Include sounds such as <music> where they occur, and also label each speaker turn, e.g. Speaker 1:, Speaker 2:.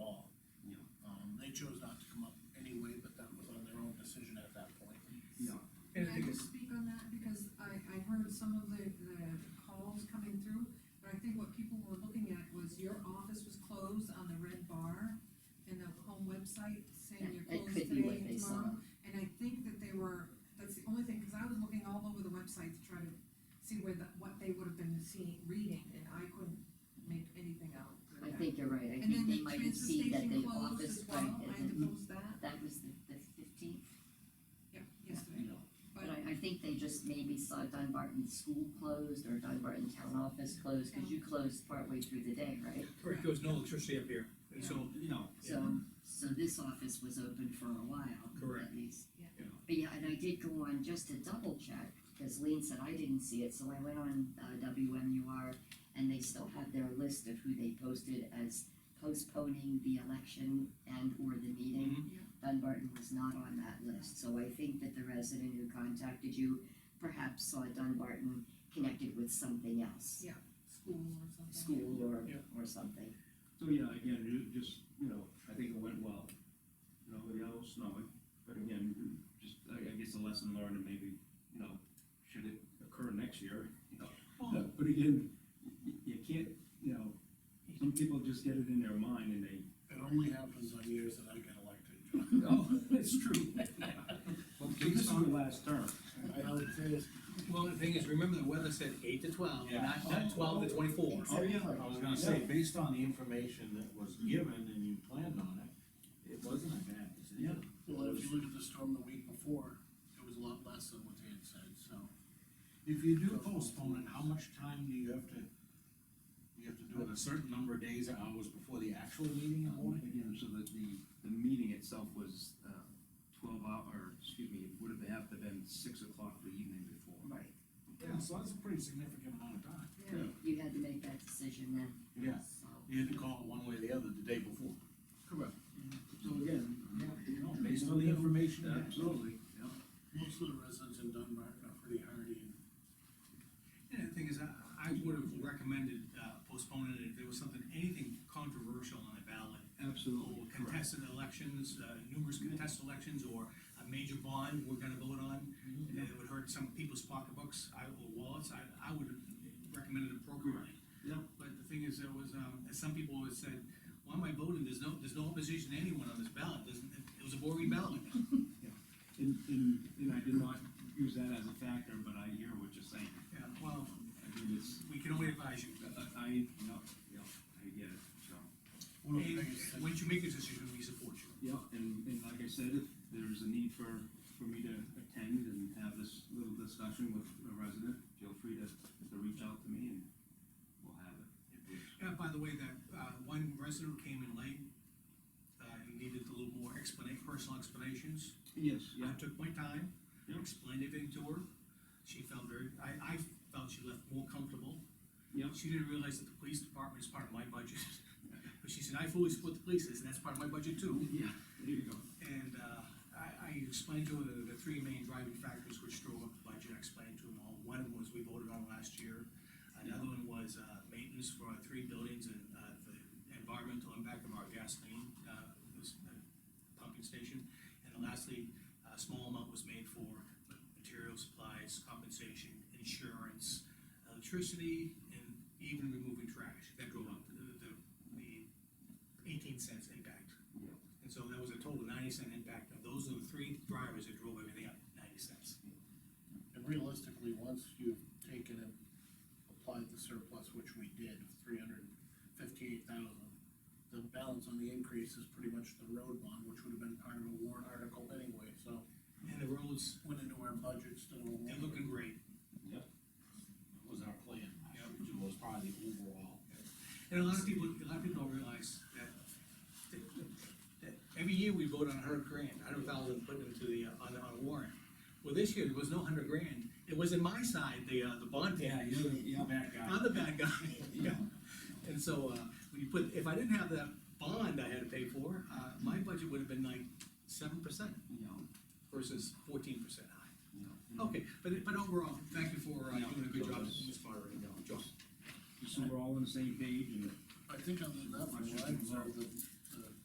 Speaker 1: um,
Speaker 2: with some of the, the calls coming through, but I think what people were looking at was your office was closed on the red bar in the home website saying you're
Speaker 3: That
Speaker 2: closed
Speaker 3: could be
Speaker 2: today
Speaker 3: what
Speaker 2: and
Speaker 3: they saw.
Speaker 2: tomorrow. And I think that they were, that's the only thing, cause I was looking all over the website to try to see where the, what they would have been seeing, reading, and I couldn't make anything out. with
Speaker 3: I
Speaker 2: that.
Speaker 3: think you're right, I
Speaker 2: And then
Speaker 3: think they
Speaker 2: the
Speaker 3: might have
Speaker 2: transfer
Speaker 3: seen that
Speaker 2: station
Speaker 3: the
Speaker 2: closed
Speaker 3: office,
Speaker 2: as well, I
Speaker 3: right,
Speaker 2: had
Speaker 3: and
Speaker 2: to
Speaker 3: then-
Speaker 2: post that,
Speaker 3: that was the, the fifteenth,
Speaker 2: yeah, yesterday,
Speaker 3: but I, I think they just maybe saw Dunbarton School closed or Dunbarton Town Office closed, cause you closed partway through the day, right?
Speaker 2: Correct.
Speaker 4: There was no electricity up here, and so, you know,
Speaker 3: So, so this office was open for a while,
Speaker 4: Correct.
Speaker 3: at least.
Speaker 2: Yeah.
Speaker 4: Yeah.
Speaker 3: But yeah, and I did go on just to double check, because Lean said I didn't see it, so I went on, uh, WMUR, and they still have their list of who they posted as postponing the election and or the meeting.
Speaker 4: Mm-hmm.
Speaker 2: Mhm. Yeah.
Speaker 3: Dunbarton was not on that list, so I think that the resident who contacted you perhaps saw Dunbarton connected with something else,
Speaker 2: school or something.
Speaker 3: school or,
Speaker 4: Yeah.
Speaker 3: or something.
Speaker 5: So, yeah, again, you just, you know, I think it went well. Nobody else, no, but again, just, I, I guess a lesson learned and maybe, you know, should it occur next year, you know?
Speaker 4: Well-
Speaker 5: But again, you, you can't, you know, some people just get it in their mind and they,
Speaker 1: It only happens on years that I get elected, John.
Speaker 5: oh, <laughs> it's true.
Speaker 4: well,
Speaker 5: This
Speaker 4: based
Speaker 5: is
Speaker 4: on-
Speaker 5: the last term.
Speaker 1: I hope it is.
Speaker 4: well, the thing is, remember the weather said eight to twelve,
Speaker 6: Yeah.
Speaker 4: not, not twelve to twenty-four.
Speaker 3: Oh, yeah.
Speaker 6: I was gonna say, based on the information that was given and you planned on it, it wasn't a bad decision.
Speaker 1: Well, if you look at the storm the week before, it was a lot less than what they had said, so.
Speaker 6: If you do postpone it, how much time do you have to, you have to do it a certain number of days or hours before the actual meeting in the morning?
Speaker 5: Again, so that the, the meeting itself was, uh, twelve hour, or, excuse me, it would have have to been six o'clock the evening before.
Speaker 3: Right.
Speaker 6: Yeah, so that's a pretty significant amount of time.
Speaker 2: Yeah.
Speaker 3: You had to make that decision then.
Speaker 6: Yeah.
Speaker 3: So,
Speaker 6: You had to call it one way or the other the day before.
Speaker 5: Correct. So again, yeah, you know,
Speaker 6: Based on the information. you had.
Speaker 5: Absolutely, yeah.
Speaker 1: Most of the residents in Dunbar are pretty hardy and
Speaker 4: Yeah, the thing is, I, I would have recommended uh, postponing it if there was something, anything controversial on the ballot.
Speaker 5: Absolutely.
Speaker 4: Or contested elections, uh, numerous contested elections, or a major bond we're gonna vote on, and it would hurt some people's pocketbooks, I, or wallets, I, I would have recommended appropriately.
Speaker 5: Yeah.
Speaker 4: But the thing is, there was, um, as some people always said, why am I voting, there's no, there's no opposition to anyone on this ballot, doesn't, it was a boring ballot.
Speaker 5: And, and, and I did not use that as a factor, but I hear what you're saying.
Speaker 4: Yeah, well,
Speaker 5: I mean, it's,
Speaker 4: we can only advise you.
Speaker 5: I- I, yeah, yeah, I get it, so.
Speaker 1: one of the biggest
Speaker 4: And once you make a decision, we support you.
Speaker 5: Yeah, and, and like I said, if there's a need for, for me to attend and have this little discussion with a resident, feel free to, to reach out to me and we'll have it.
Speaker 4: Yeah, by the way, that, uh, one resident who came in late, uh, and needed a little more explanation, personal explanations.
Speaker 5: Yes,
Speaker 4: I took my time,
Speaker 5: Yeah.
Speaker 4: explained everything to her, she felt very, I, I felt she left more comfortable.
Speaker 5: Yeah.
Speaker 4: She didn't realize that the police department is part of my budget, <laughs> but she said, I fully support the police, I said, that's part of my budget too.
Speaker 5: Yeah, there you go.
Speaker 4: And, uh, I, I explained to her the, the three main driving factors which drove up the budget, I explained to them all, one of them was we voted on last year. Another one was, uh, maintenance for our three buildings and, uh, the environmental impact of our gasoline, uh, this, uh, pumping station. And lastly, a small amount was made for material supplies, compensation, insurance, electricity, and even removing trash, that drove up the, the, the eighteen cents impact. And so that was a total ninety cent impact, of those are the three drivers that drove everything up ninety cents.
Speaker 1: And realistically, once you've taken and applied the surplus, which we did, three hundred fifty-eight thousand, the balance on the increase is pretty much the road bond, which would have been part of a warrant article anyway, so
Speaker 4: And the roads,
Speaker 1: went into our budget still. a warrant.
Speaker 4: they're looking great.
Speaker 6: That was our plan, which was probably the overall.
Speaker 4: And a lot of people, a lot of people don't realize that, that, that every year we vote on a hundred grand, a hundred thousand put into the, uh, on, on a warrant. Well, this year, there was no hundred grand, it was in my side, the, uh, the bond.
Speaker 6: Yeah,
Speaker 4: package.
Speaker 6: you're the, you're the bad guy.
Speaker 4: I'm the bad guy, <laughs> yeah. And so, uh, when you put, if I didn't have that bond I had to pay for, uh, my budget would have been like seven percent
Speaker 5: Yeah,
Speaker 4: versus fourteen percent high.
Speaker 5: yeah.
Speaker 4: Okay, but, but overall, thank you for uh,
Speaker 5: Yeah.
Speaker 4: doing a good job as moderator, John.
Speaker 5: So we're all on the same page and
Speaker 1: I think other than that, from what I observed, the